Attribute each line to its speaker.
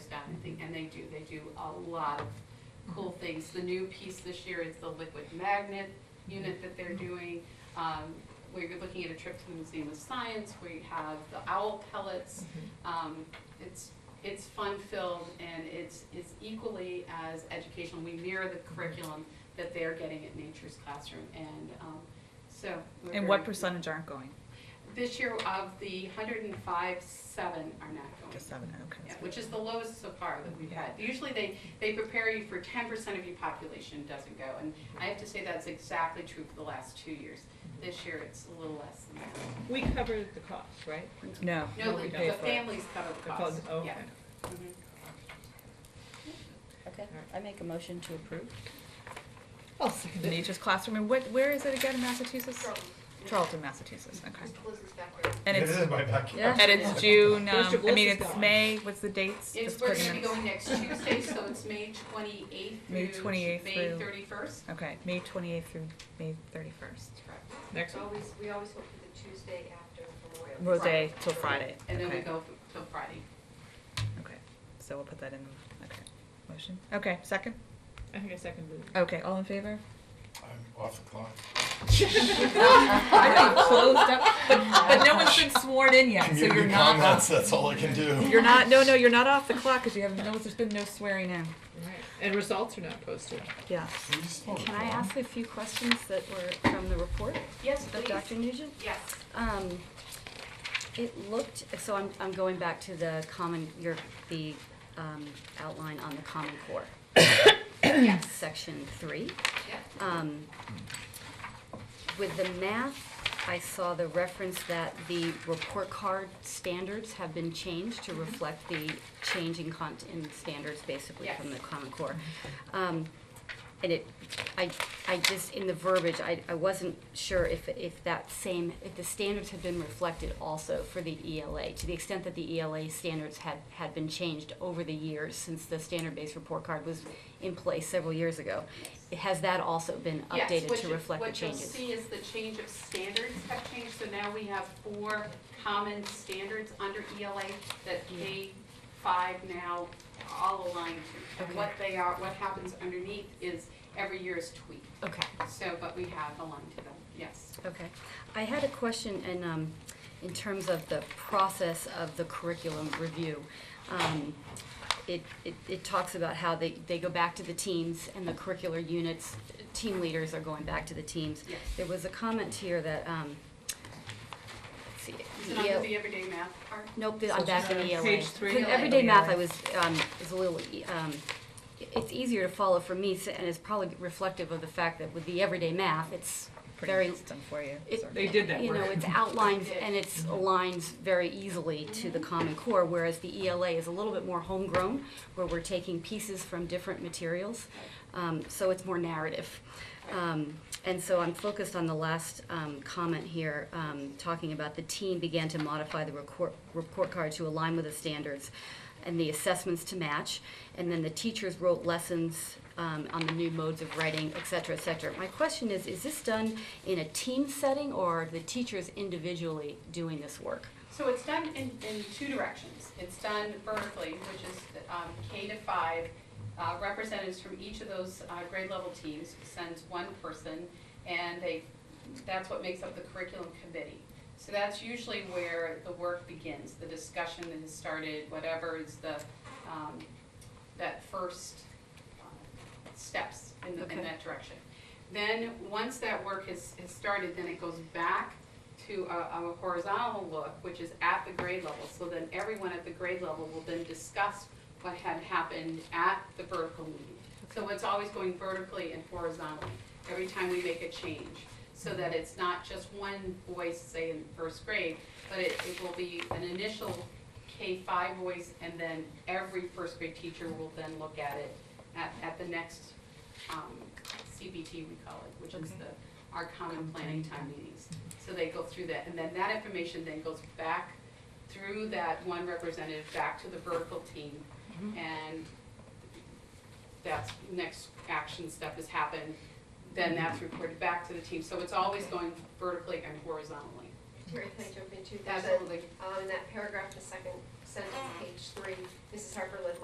Speaker 1: and they do, they do a lot of cool
Speaker 2: Mm-hmm.
Speaker 1: things. The new piece this year is the liquid magnet unit that
Speaker 2: Mm-hmm.
Speaker 1: they're doing. Um, we're looking at a trip to the Museum of Science, we have the owl pellets.
Speaker 2: Mm-hmm.
Speaker 1: Um, it's, it's fun-filled and it's, it's equally as educational. We mirror
Speaker 2: Mm-hmm.
Speaker 1: the curriculum that they're getting at Nature's Classroom and, um, so. we're
Speaker 2: And what
Speaker 1: very-
Speaker 2: percentage aren't going?
Speaker 1: This year of the hundred and five, seven are not going.
Speaker 2: Just seven,
Speaker 1: Yeah,
Speaker 2: okay.
Speaker 1: which is the lowest so far that we've had. Usually they, they prepare you for ten percent of your population doesn't go, and I have to say that's exactly true for the last two years. This year, it's a little less than that.
Speaker 3: We covered the cost, right?
Speaker 2: No.
Speaker 1: No,
Speaker 3: we
Speaker 1: the
Speaker 3: pay
Speaker 1: the
Speaker 3: for it.
Speaker 1: families cover the cost,
Speaker 3: Oh,
Speaker 1: yeah.
Speaker 3: okay.
Speaker 1: Mhm.
Speaker 4: Okay, I make a motion to approve.
Speaker 3: I'll second it.
Speaker 2: Nature's Classroom, and what, where is it again in Massachusetts?
Speaker 1: Charlton.
Speaker 2: Charlton, Massachusetts, okay.
Speaker 1: Just close this backwards.
Speaker 2: And
Speaker 5: Yeah, This
Speaker 2: it's,
Speaker 5: is my backyard.
Speaker 2: and it's June,
Speaker 3: Where's
Speaker 2: um,
Speaker 3: your
Speaker 2: I mean,
Speaker 3: voices
Speaker 2: it's
Speaker 3: going?
Speaker 2: May, what's the dates?
Speaker 1: It's,
Speaker 2: Just
Speaker 1: we're
Speaker 2: putting
Speaker 1: gonna be
Speaker 2: it-
Speaker 1: going next Tuesday, so it's May twenty-eighth
Speaker 2: May
Speaker 1: through
Speaker 2: 28th
Speaker 1: May
Speaker 2: through-
Speaker 1: thirty-first.
Speaker 2: Okay, May twenty-eighth through May thirty-first.
Speaker 3: Next
Speaker 6: It's
Speaker 3: one.
Speaker 6: always, we always hope for the Tuesday after Memorial. Day.
Speaker 2: Rose till Friday,
Speaker 1: And then we
Speaker 2: okay,
Speaker 1: go f- till Friday.
Speaker 2: okay. So we'll put that in, okay, motion, okay, second?
Speaker 3: I think I seconded it.
Speaker 2: Okay, all in favor?
Speaker 5: I'm off the clock.
Speaker 2: I think closed up, but, but no one's been sworn in yet, so you're
Speaker 5: Community
Speaker 2: not
Speaker 5: comments,
Speaker 2: off.
Speaker 5: that's all I can do.
Speaker 2: You're not, no, no, you're not off the clock, because you haven't, no, there's been no swearing in.
Speaker 3: Right. And results are not posted.
Speaker 2: Yeah.
Speaker 5: We just don't
Speaker 4: Can I
Speaker 5: call.
Speaker 4: ask a few questions that were from the report
Speaker 1: Yes,
Speaker 4: of Dr.
Speaker 1: please,
Speaker 4: Nugent?
Speaker 1: yes.
Speaker 4: Um, it looked, so I'm, I'm going back to the common, your, the, um, outline on the Common Core. Section three.
Speaker 1: Yeah.
Speaker 4: Um, with the math, I saw the reference that the report card standards have been changed to reflect the change in cont, in standards basically from the
Speaker 1: Yes.
Speaker 4: Common Core. Um, and it, I, I just, in the verbiage, I, I wasn't sure if, if that same, if the standards had been reflected also for the ELA, to the extent that the ELA standards had, had been changed over the years since the standard-based report card was in place several years ago. Has that also been
Speaker 1: Yes,
Speaker 4: updated
Speaker 1: what
Speaker 4: to
Speaker 1: you-
Speaker 4: reflect the changes?
Speaker 1: What you'll see is the change of standards have changed, so now we have four common standards under ELA that K five now all align to. And
Speaker 4: Okay.
Speaker 1: what they are, what happens underneath is every year is tweaked,
Speaker 4: Okay.
Speaker 1: so, but we have aligned to them, yes.
Speaker 4: Okay. I had a question in, um, in terms of the process of the curriculum review. Um, it, it, it talks about how they, they go back to the teams and the curricular units, team leaders are going back to the teams.
Speaker 1: Yes.
Speaker 4: There was a comment here that, um, let's see.
Speaker 1: Is it under
Speaker 4: yeah,
Speaker 1: the everyday math part?
Speaker 4: Nope, th- I'm back in E
Speaker 3: uh,
Speaker 4: ELA.
Speaker 3: page three. E
Speaker 4: 'Cause
Speaker 1: ELA.
Speaker 4: everyday math, I was, um, is a little, e- um, i- it's easier to follow for me, s- and it's probably reflective of the fact that with the everyday math, it's very
Speaker 2: Pretty done for you.
Speaker 4: it-
Speaker 2: Sorry.
Speaker 3: They did that
Speaker 4: You know,
Speaker 3: work.
Speaker 4: it's outlined
Speaker 1: They did.
Speaker 4: and it's aligns very easily to the Common Core, whereas the ELA is a little bit more homegrown, where we're taking pieces from different materials, um, so it's more narrative. Um, and so I'm focused on the last, um, comment here, um, talking about the team began to modify the report, report card to align with the standards and the assessments to match, and then the teachers wrote lessons um, on the new modes of writing, et cetera, et cetera. My question is, is this done in a team setting, or are the teachers individually doing this work?
Speaker 1: So it's done in, in two directions. It's done vertically, which is um, K to five. Uh, Representatives from each of those uh, grade level teams sends one person, and they, that's what makes up the curriculum committee. So that's usually where the work begins, the discussion that has started, whatever is the, um, that first uh, steps in, the- in
Speaker 4: Okay.
Speaker 1: that direction. Then, once that work has, has started, then it goes back to a, a horizontal look, which is at the grade level. So then everyone at the grade level will then discuss what had happened at the vertical meeting. So it's always going vertically and horizontally every time we make a change. So that it's not just one voice, say in first grade, but it, it will be an initial K five voice and then every first grade teacher will then look at it at, at the next, um, CBT we call it, which is
Speaker 4: Okay.
Speaker 1: the, our common planning time meetings. So they go through that, and then that information then goes back through that one representative, back to the vertical team. And that's, next action step has happened, then that's reported back to the team. So it's always going vertically and horizontally.
Speaker 6: Terry, can I jump in too? There's a-
Speaker 1: Absolutely.
Speaker 6: Um, in that paragraph, the second sentence, page three, Mrs. Harper led